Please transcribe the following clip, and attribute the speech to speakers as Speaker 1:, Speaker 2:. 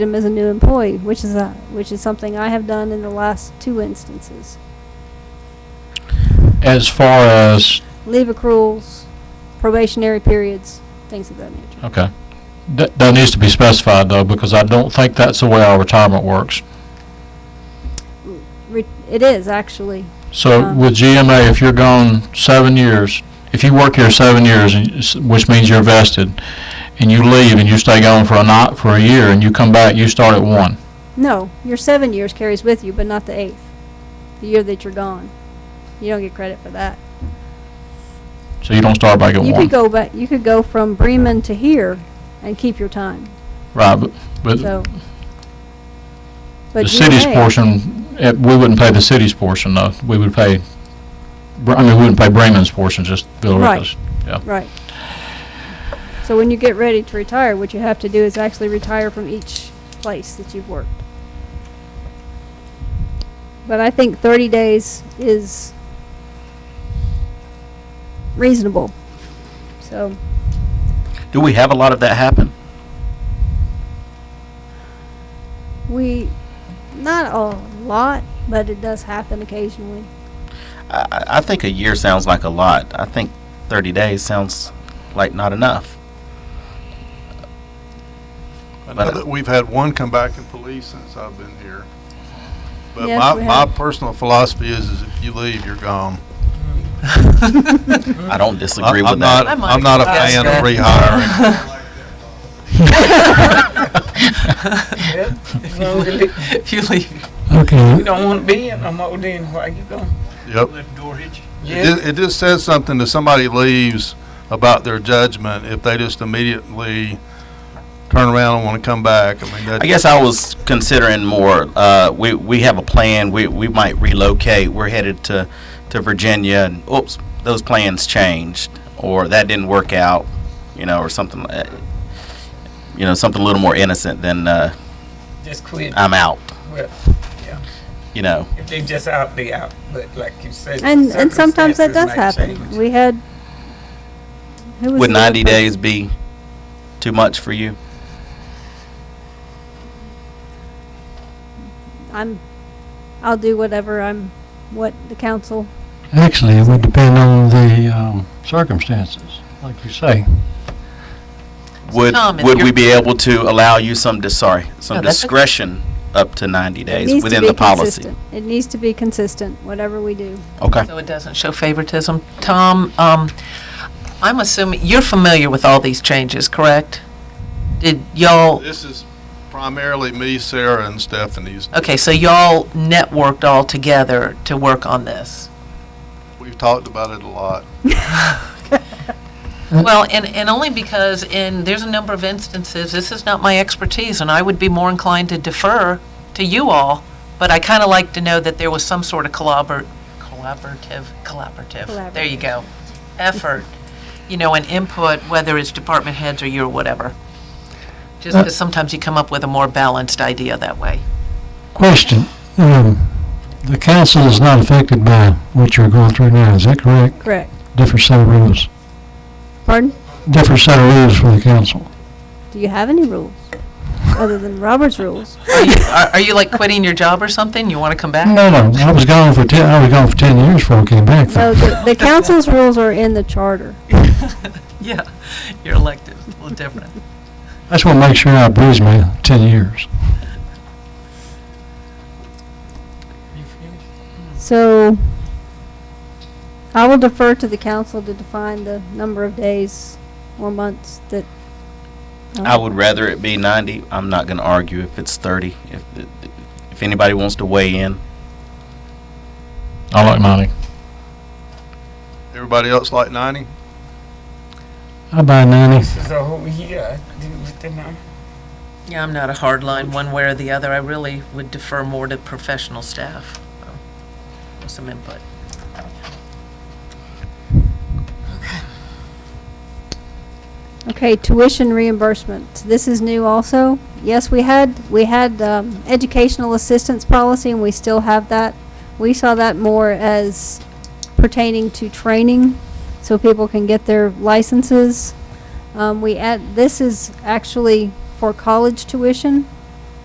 Speaker 1: him as a new employee, which is a, which is something I have done in the last two instances.
Speaker 2: As far as,
Speaker 1: Leave accruals, probationary periods, things of that nature.
Speaker 2: okay, that, that needs to be specified though, because I don't think that's the way our retirement works.
Speaker 1: Mm. Re- It is actually,
Speaker 2: So
Speaker 1: Uh-huh.
Speaker 2: with GMA, if you're gone seven years, if you work here seven years, and s- which means you're vested, and you leave and you stay gone for a night, for a year, and you come back, you start at one.
Speaker 1: no, your seven years carries with you, but not the eighth, the year that you're gone. You don't get credit for that.
Speaker 2: So you don't start back at
Speaker 1: You could
Speaker 2: one.
Speaker 1: go back, you could go from Bremen to here and keep your time,
Speaker 2: Right, but, but
Speaker 1: so. But
Speaker 2: the city's
Speaker 1: GMA
Speaker 2: portion, eh, we wouldn't pay the city's portion though. We would pay, Bre- I mean, we wouldn't pay Bremen's portion, just
Speaker 1: Right.
Speaker 2: Villarica's.
Speaker 1: Right. So when you get ready to retire, what you have to do is actually retire from each place that you've worked. But I think thirty days is reasonable. So,
Speaker 3: Do we have a lot of that happen?
Speaker 1: we, not a lot, but it does happen occasionally.
Speaker 3: I, I- I think a year sounds like a lot. I think 30 days sounds like not enough.
Speaker 4: I
Speaker 3: But-
Speaker 4: know that we've had one come back in police since I've been here. But
Speaker 1: Yes,
Speaker 4: my,
Speaker 1: we
Speaker 4: my
Speaker 1: have.
Speaker 4: personal philosophy is, is if you leave, you're gone.
Speaker 3: I don't disagree
Speaker 4: I'm
Speaker 3: with
Speaker 4: I'm
Speaker 3: that.
Speaker 4: not, I'm not a fan of rehiring.
Speaker 5: If you leave, if you leave,
Speaker 2: Okay.
Speaker 5: you don't want to be in no more, then where you going?
Speaker 4: Yep. It
Speaker 5: Yeah,
Speaker 4: just, it just says something to somebody leaves about their judgment if they just immediately turn around and want to come back. I mean, that.
Speaker 3: I guess I was considering more. Uh, we, we have a plan. We, we might relocate. We're headed to, to Virginia, and oops, those plans changed, or that didn't work out, you know, or something. like You know, something a little more innocent than uh,
Speaker 5: just quit.
Speaker 3: I'm out.
Speaker 5: Well,
Speaker 3: You know,
Speaker 5: if they just out, they out. But like you said,
Speaker 1: And, and sometimes that
Speaker 5: circumstances
Speaker 1: does
Speaker 5: might
Speaker 1: happen.
Speaker 5: change.
Speaker 1: We had. who was
Speaker 3: would
Speaker 1: the other
Speaker 3: 90
Speaker 1: person?
Speaker 3: days be too much for you?
Speaker 1: I'm, I'll do whatever I'm, what the council
Speaker 6: Actually, it would depend on the um, circumstances, like you say.
Speaker 3: Would,
Speaker 7: Tom, if
Speaker 3: would we
Speaker 7: you're-
Speaker 3: be able to allow you some, dis- sorry, some
Speaker 7: No, that's okay.
Speaker 3: discretion up to 90
Speaker 1: It
Speaker 3: days
Speaker 1: needs to
Speaker 3: within
Speaker 1: be
Speaker 3: the policy?
Speaker 1: consistent. It needs to be consistent, whatever we do.
Speaker 3: Okay.
Speaker 7: So it doesn't show favoritism. Tom, um, I'm assuming, you're familiar with all these changes, correct? Did y'all,
Speaker 4: This is primarily me, Sarah, and Stephanie's.
Speaker 7: okay, so y'all networked all together to work on this?
Speaker 4: We've talked about it a lot.
Speaker 7: Well, and, and only because in, there's a number of instances, this is not my expertise, and I would be more inclined to defer to you all, but I kind of like to know that there was some sort of collabor, collaborative, collaborative, there you go, effort, you know, and input, whether it's department heads or you or whatever. Just
Speaker 6: Uh,
Speaker 7: because sometimes you come up with a more balanced idea that way.
Speaker 6: Question, um, the council is not affected by what you're going through now, is that correct?
Speaker 1: Correct.
Speaker 6: Different set of rules,
Speaker 1: Pardon?
Speaker 6: different set of rules for the council.
Speaker 1: Do you have any rules other than Robert's rules?
Speaker 7: Are you, are are you like quitting your job or something? You want to come back?
Speaker 6: No, no, I was gone for ten, I was gone for ten years before I came back.
Speaker 1: No,
Speaker 6: though.
Speaker 1: the, the council's rules are in the charter.
Speaker 7: Yeah, you're elected, a little different.
Speaker 6: I just want to make sure I breeze my ten years.
Speaker 5: You finished?
Speaker 1: So I will defer to the council to define the number of days or months that. um,
Speaker 3: I would rather it be 90. I'm not going to argue if it's 30. If, if anybody wants to weigh in,
Speaker 2: I like money.
Speaker 4: Everybody else like ninety?
Speaker 6: I buy ninety,
Speaker 5: This is a whole year. I didn't get the number.
Speaker 7: Yeah, I'm not a hard line one way or the other. I really would defer more to professional staff. um, with Some input.
Speaker 1: Okay, tuition reimbursement. This is new also. Yes, we had, we had um, educational assistance policy and we still have that. We saw that more as pertaining to training, so people can get their licenses. Um, we add, this is actually for college tuition.